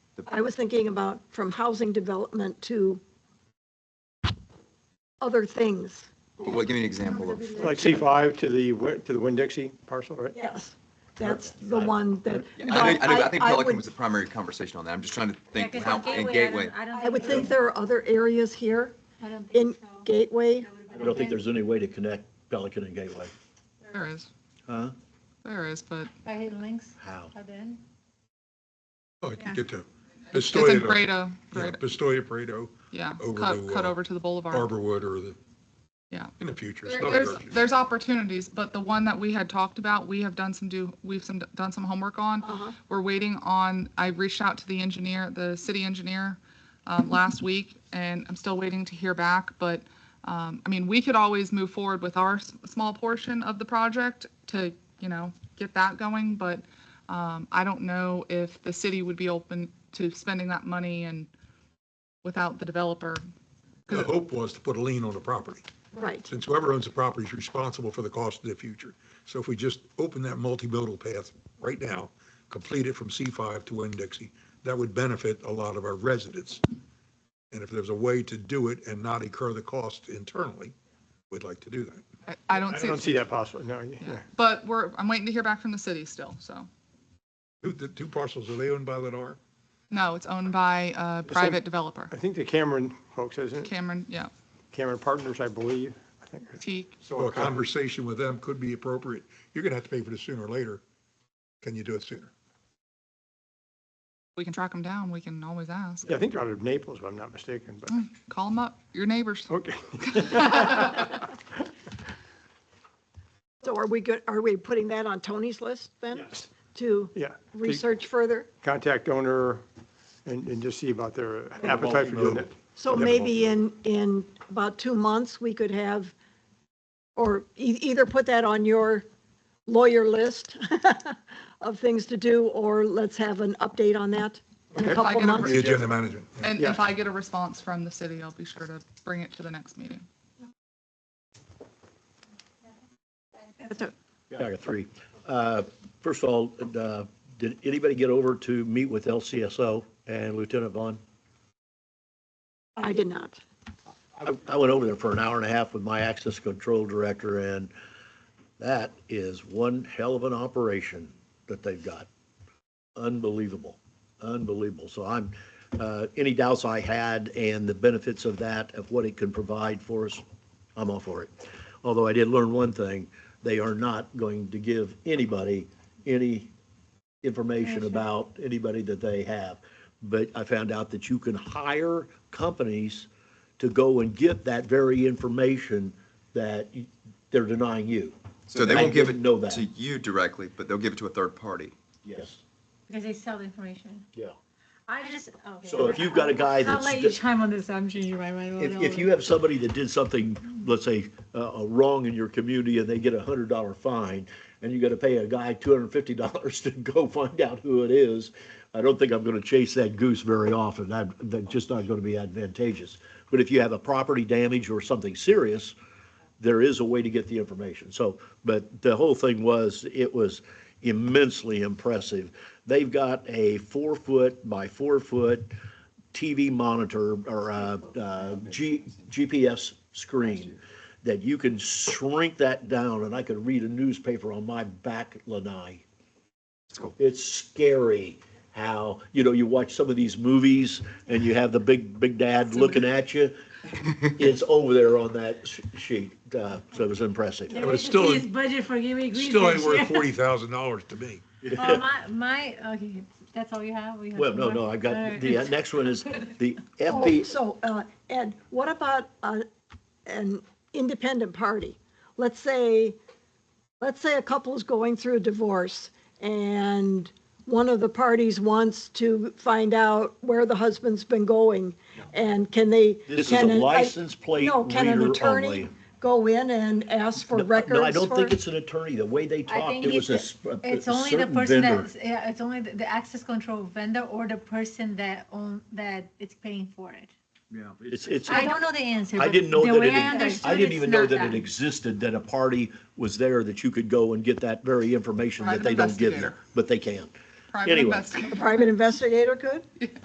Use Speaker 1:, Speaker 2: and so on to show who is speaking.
Speaker 1: I was thinking about from housing development to other things.
Speaker 2: Well, give me an example of,
Speaker 3: Like C5 to the, wi- to the Winn-Dixie parcel, right?
Speaker 1: Yes, that's the one that.
Speaker 2: I think, I think- I think
Speaker 1: I
Speaker 2: Pelican
Speaker 1: would-
Speaker 2: was the primary conversation on that. I'm just trying to
Speaker 4: Yeah,
Speaker 2: think
Speaker 4: 'cause
Speaker 2: how,
Speaker 4: on
Speaker 2: and
Speaker 4: I
Speaker 2: Gateway.
Speaker 4: don't- I don't
Speaker 1: I would think there are other areas here
Speaker 4: I don't
Speaker 1: in
Speaker 4: think so.
Speaker 1: Gateway.
Speaker 5: I don't think there's any way to connect Pelican and Gateway.
Speaker 6: There is,
Speaker 5: Huh?
Speaker 6: there is, but
Speaker 4: By links
Speaker 5: How?
Speaker 4: are then.
Speaker 7: Oh, I
Speaker 4: Yeah.
Speaker 7: can get to
Speaker 6: it's uh, in
Speaker 7: Pistoia,
Speaker 6: Grado,
Speaker 7: yeah,
Speaker 6: Grado,
Speaker 7: Pistoia, Pareto,
Speaker 6: yeah,
Speaker 7: over
Speaker 6: cut,
Speaker 7: to,
Speaker 6: cut
Speaker 7: uh,
Speaker 6: over to the boulevard.
Speaker 7: Arborwood, or the,
Speaker 6: Yeah.
Speaker 7: in the future.
Speaker 6: There-
Speaker 7: it's not
Speaker 6: There's,
Speaker 7: urgent.
Speaker 6: there's opportunities, but the one that we had talked about, we have done some do, we've some, done some homework on.
Speaker 1: Uh-huh.
Speaker 6: We're waiting on, I reached out to the engineer, the city engineer, um, last week, and I'm still waiting to hear back, but, um, I mean, we could always move forward with our s- small portion of the project to, you know, get that going, but, um, I don't know if the city would be open to spending that money and without the developer.
Speaker 7: The hope was to put a lien on the property,
Speaker 1: Right,
Speaker 7: since whoever owns the property is responsible for the cost of the future. So if we just open that multimodal path right now, complete it from C5 to Winn-Dixie, that would benefit a lot of our residents. And if there's a way to do it and not incur the cost internally, we'd like to do that.
Speaker 6: I- I don't
Speaker 3: I
Speaker 6: see,
Speaker 3: don't see that possible, no. yeah.
Speaker 6: but we're, I'm waiting to hear back from the city still, so.
Speaker 7: Who- The two parcels, are they owned by Lennar?
Speaker 6: No, it's owned by a private developer.
Speaker 3: I think the Cameron folks, isn't it?
Speaker 6: Cameron, yeah,
Speaker 3: Cameron Partners, I believe. I think.
Speaker 6: T,
Speaker 7: So a conversation with them could be appropriate. You're going to have to pay for this sooner or later. Can you do it sooner?
Speaker 6: we can track them down, we can always ask. Mm,
Speaker 3: Yeah, I think they're out of Naples, if I'm not mistaken,
Speaker 6: Hmm.
Speaker 3: but,
Speaker 6: Call them up, your neighbors.
Speaker 3: okay.
Speaker 1: so are we good, are we putting that on Tony's list then?
Speaker 3: Yes.
Speaker 1: To
Speaker 3: Yeah.
Speaker 1: research further?
Speaker 3: Contact owner and, and just see about their appetite for doing it.
Speaker 1: So maybe in, in about two months, we could have, or e- either put that on your lawyer list of things to do, or let's have an update on that in a
Speaker 6: I
Speaker 1: couple
Speaker 6: can-
Speaker 1: months.
Speaker 7: The agenda management. yeah.
Speaker 6: And
Speaker 3: Yeah.
Speaker 6: if I get a response from the city, I'll be sure to bring it to the next meeting.
Speaker 1: That's it.
Speaker 5: Yeah, I got three. Uh, First of all, uh, did anybody get over to meet with LCSO and Lieutenant Vaughn?
Speaker 1: I did not.
Speaker 5: I- I went over there for an hour and a half with my access control director, and that is one hell of an operation that they've got. Unbelievable, unbelievable. So I'm, uh, any doubts I had and the benefits of that, of what it can provide for us, I'm all for it. Although I did learn one thing, they are not going to give anybody any information about anybody that they have. But I found out that you can hire companies to go and get that very information that y- they're denying you.
Speaker 2: So they
Speaker 5: I
Speaker 2: won't give it
Speaker 5: didn't know that.
Speaker 2: to you directly, but they'll give it to a third party.
Speaker 5: Yes,
Speaker 4: Because they sell the information.
Speaker 5: yeah.
Speaker 4: I just, okay.
Speaker 5: So if you've got a guy
Speaker 4: I'll
Speaker 5: that's,
Speaker 4: let you
Speaker 5: if,
Speaker 4: chime on this, I'm changing my mind.
Speaker 5: if you have somebody that did something, let's say, uh, uh, wrong in your community and they get a hundred dollar fine and you gotta pay a guy two hundred and fifty dollars to go find out who it is, I don't think I'm gonna chase that goose very often. That, that's just not gonna be advantageous. But if you have a property damage or something serious, there is a way to get the information. So, but the whole thing was, it was immensely impressive. They've got a four foot by four foot TV monitor or uh, uh, G, GPS screen that you can shrink that down and I could read a newspaper on my back lanai. It's scary how, you know, you watch some of these movies and you have the big, big dad looking at you. It's over there on that sh- sheet. Uh, so it was impressive.
Speaker 4: There
Speaker 7: but
Speaker 4: is a
Speaker 7: still-
Speaker 4: police budget for Gateway Green.
Speaker 7: Still ain't
Speaker 4: this
Speaker 7: worth
Speaker 4: year.
Speaker 7: forty thousand dollars to me.
Speaker 4: Oh, my, my, okay, that's all you have? We have
Speaker 5: Well,
Speaker 4: some
Speaker 5: no,
Speaker 4: more?
Speaker 5: no, I've
Speaker 4: All
Speaker 5: got,
Speaker 4: right.
Speaker 5: the uh, next one is the
Speaker 1: Oh,
Speaker 5: FP,
Speaker 1: So, uh, Ed, what about uh, an independent party? Let's say, let's say a couple's going through a divorce and one of the parties wants to find out where the husband's been going. And can they?
Speaker 5: This is
Speaker 1: can
Speaker 5: a
Speaker 1: an- I-
Speaker 5: license plate
Speaker 1: No, can an
Speaker 5: reader
Speaker 1: attorney
Speaker 5: only.
Speaker 1: Go in and ask for records
Speaker 5: No, I don't
Speaker 1: for-
Speaker 5: think it's an attorney. The way they talked,
Speaker 4: think
Speaker 5: it was a
Speaker 4: it's-
Speaker 5: sp- a a
Speaker 4: It's only the
Speaker 5: certain
Speaker 4: person
Speaker 5: vendor.
Speaker 4: that's, yeah, it's only the, the access control vendor or the person that own, that is paying for it.
Speaker 5: It's, it's,
Speaker 4: I
Speaker 5: I
Speaker 4: don't know the answer. but
Speaker 5: didn't know
Speaker 4: the way I
Speaker 5: that it,
Speaker 4: understood
Speaker 5: I didn't
Speaker 4: it's
Speaker 5: even know
Speaker 4: not
Speaker 5: that it existed, that a party was there that you could go and get that very information that
Speaker 6: Private
Speaker 5: they don't give you,
Speaker 6: investigator.
Speaker 5: but they can.
Speaker 6: Private
Speaker 5: Anyway.
Speaker 6: investigator.
Speaker 1: Private investigator could?